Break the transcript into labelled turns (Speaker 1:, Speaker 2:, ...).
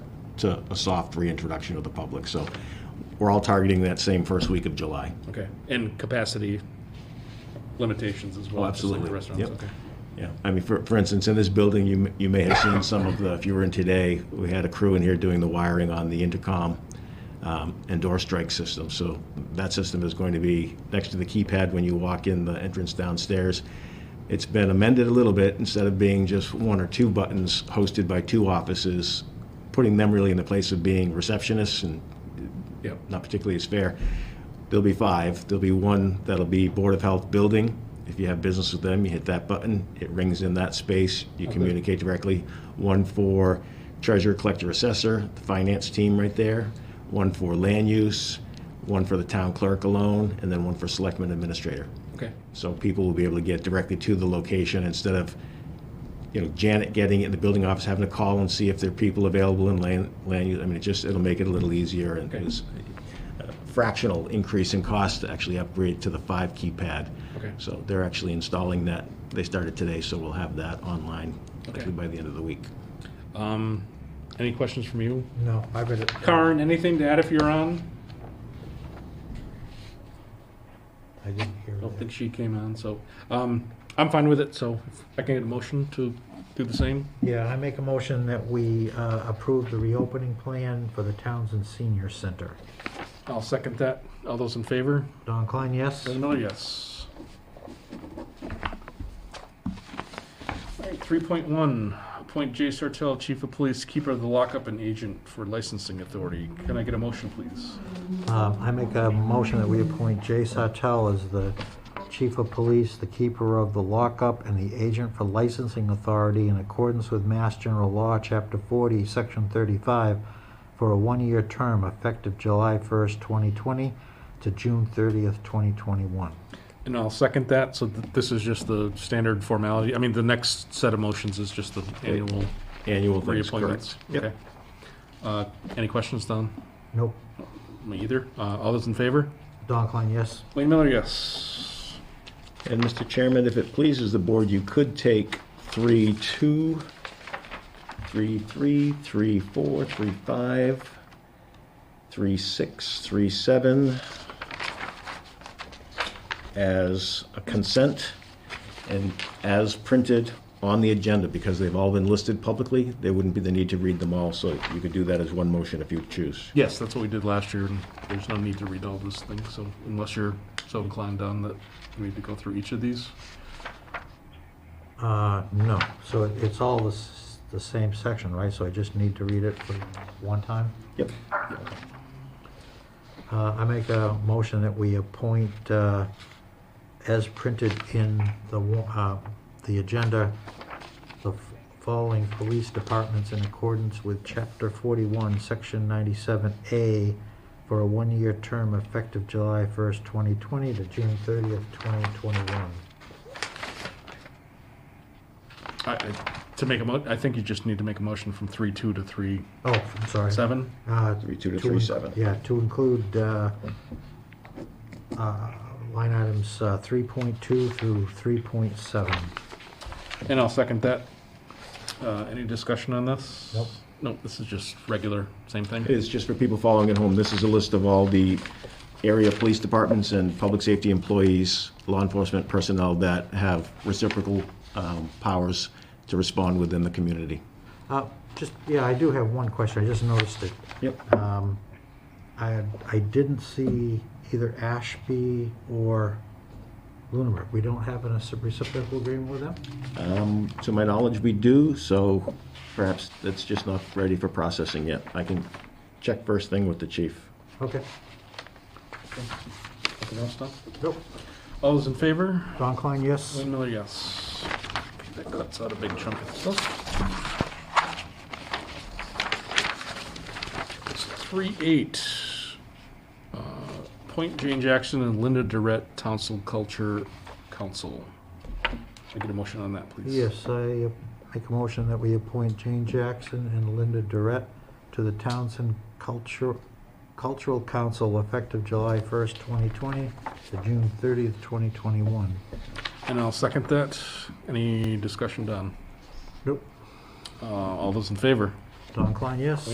Speaker 1: to a soft reintroduction of the public. So we're all targeting that same first week of July.
Speaker 2: Okay, and capacity limitations as well?
Speaker 1: Oh,
Speaker 2: just like the
Speaker 1: absolutely.
Speaker 2: Restaurants,
Speaker 1: Yep.
Speaker 2: okay.
Speaker 1: Yeah, I mean, for, for instance, in this building, you, m- you may have seen some of the, if you were in today, we had a crew in here doing the wiring on the intercom um, and door strike system. So that system is going to be next to the keypad when you walk in the entrance downstairs. It's been amended a little bit, instead of being just one or two buttons hosted by two offices, putting them really in the place of being receptionists and
Speaker 2: Yep,
Speaker 1: not particularly as fair. There'll be five. There'll be one that'll be Board of Health building. If you have business with them, you hit that button, it rings in that space, you communicate directly. One for treasurer, collector, assessor, the finance team right there, one for land use, one for the town clerk alone, and then one for selectman administrator.
Speaker 2: okay,
Speaker 1: So people will be able to get directly to the location instead of, you know, Janet getting in the building office, having to call and see if there are people available in land, land use. I mean, it just, it'll make it a little easier and
Speaker 2: Okay.
Speaker 1: it's a fractional increase in cost to actually upgrade to the five keypad.
Speaker 2: Okay.
Speaker 1: So they're actually installing that. They started today, so we'll have that online likely by the end of the week.
Speaker 2: any questions from you?
Speaker 3: No, I read it.
Speaker 2: Karen, anything to add if you're on?
Speaker 3: I didn't hear
Speaker 2: I don't
Speaker 3: it.
Speaker 2: think she came on, so, um, I'm fine with it, so if I can get a motion to do the same?
Speaker 3: Yeah, I make a motion that we uh, approve the reopening plan for the Townsend Senior Center.
Speaker 2: I'll second that. All those in favor?
Speaker 3: Don Klein, yes?
Speaker 2: Doesn't know, yes. Three point one, appoint Jay Sartell, Chief of Police, Keeper of the Lockup and Agent for Licensing Authority. Can I get a motion, please?
Speaker 3: Um, I make a motion that we appoint Jay Sartell as the chief of police, the keeper of the lockup, and the agent for licensing authority in accordance with Mass General Law, Chapter 40, Section 35, for a one-year term effective July 1st, 2020 to June 30th, 2021.
Speaker 2: And I'll second that, so th- this is just the standard formality. I mean, the next set of motions is just the annual
Speaker 1: Annual things, correct?
Speaker 2: reappointments. Okay. Uh, any questions, Don?
Speaker 3: Nope.
Speaker 2: Me either. Uh, all those in favor?
Speaker 3: Don Klein, yes?
Speaker 2: Wayne Miller, yes.
Speaker 1: And Mr. Chairman, if it pleases the board, you could take three, two, three, three, three, four, three, five, three, six, three, seven as a consent and as printed on the agenda, because they've all been listed publicly, there wouldn't be the need to read them all, so you could do that as one motion if you choose.
Speaker 2: Yes, that's what we did last year, and there's no need to read all this thing, so unless you're so inclined on that, we need to go through each of these.
Speaker 3: Uh, no. So it- it's all the s- the same section, right? So I just need to read it for one time?
Speaker 1: Yep.
Speaker 3: Uh, I make a motion that we appoint, uh, as printed in the, wa- uh, the agenda, the f- following police departments in accordance with Chapter 41, Section 97A, for a one-year term effective July 1st, 2020 to June 30th, 2021.
Speaker 2: I, I- to make a mo, I think you just need to make a motion from three two to three
Speaker 3: Oh, I'm sorry.
Speaker 2: seven.
Speaker 3: Uh,
Speaker 1: Three, two Ah, to
Speaker 3: in-
Speaker 1: three, seven.
Speaker 3: Yeah, to include uh, uh, line items uh, 3.2 through 3.7.
Speaker 2: And I'll second that. Uh, any discussion on this?
Speaker 3: Nope.
Speaker 2: Nope, this is just regular, same thing.
Speaker 1: It is just for people following at home. This is a list of all the area police departments and public safety employees, law enforcement personnel that have reciprocal um, powers to respond within the community.
Speaker 3: Uh, Just, yeah, I do have one question, I just noticed it.
Speaker 1: Yep.
Speaker 3: Um, I, I didn't see either Ashby or Lunenburg. We don't have a reciprocal agreement with them?
Speaker 1: Um, To my knowledge, we do, so perhaps that's just not ready for processing yet. I can check first thing with the chief.
Speaker 3: Okay,
Speaker 2: Anything else, Don?
Speaker 3: nope.
Speaker 2: All those in favor?
Speaker 3: Don Klein, yes?
Speaker 2: Wayne Miller, yes. That cuts out a big chunk of stuff. Three eight. uh, Point Jane Jackson and Linda Durrett, Townsend Culture Council. Can I get a motion on that, please?
Speaker 3: Yes, I uh, make a motion that we appoint Jane Jackson and Linda Durrett to the Townsend Culture, Cultural Council effective July 1st, 2020 to June 30th, 2021.
Speaker 2: And I'll second that. Any discussion done?
Speaker 3: Nope.
Speaker 2: Uh, all those in favor?
Speaker 3: Don Klein, yes?